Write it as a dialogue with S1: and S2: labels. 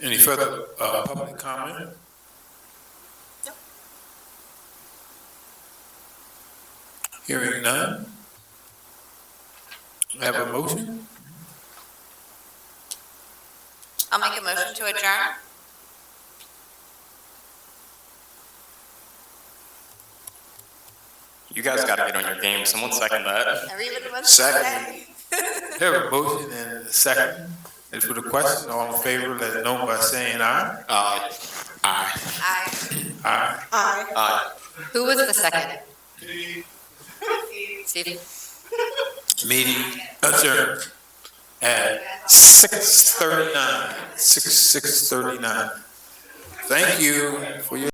S1: Any further uh, public comment? Hearing none? Have a motion?
S2: I'll make a motion to adjourn.
S3: You guys gotta get on your game. Someone second that.
S2: Everybody wants to
S1: Second.
S2: say.
S1: Have a motion and a second. As for the question, all in favor, let it know by saying aye.
S3: Uh, aye.
S2: Aye.
S1: Aye.
S3: Aye.
S4: Who was the second? Steve?
S1: Meeting adjourned at six thirty-nine, six, six thirty-nine. Thank you for your.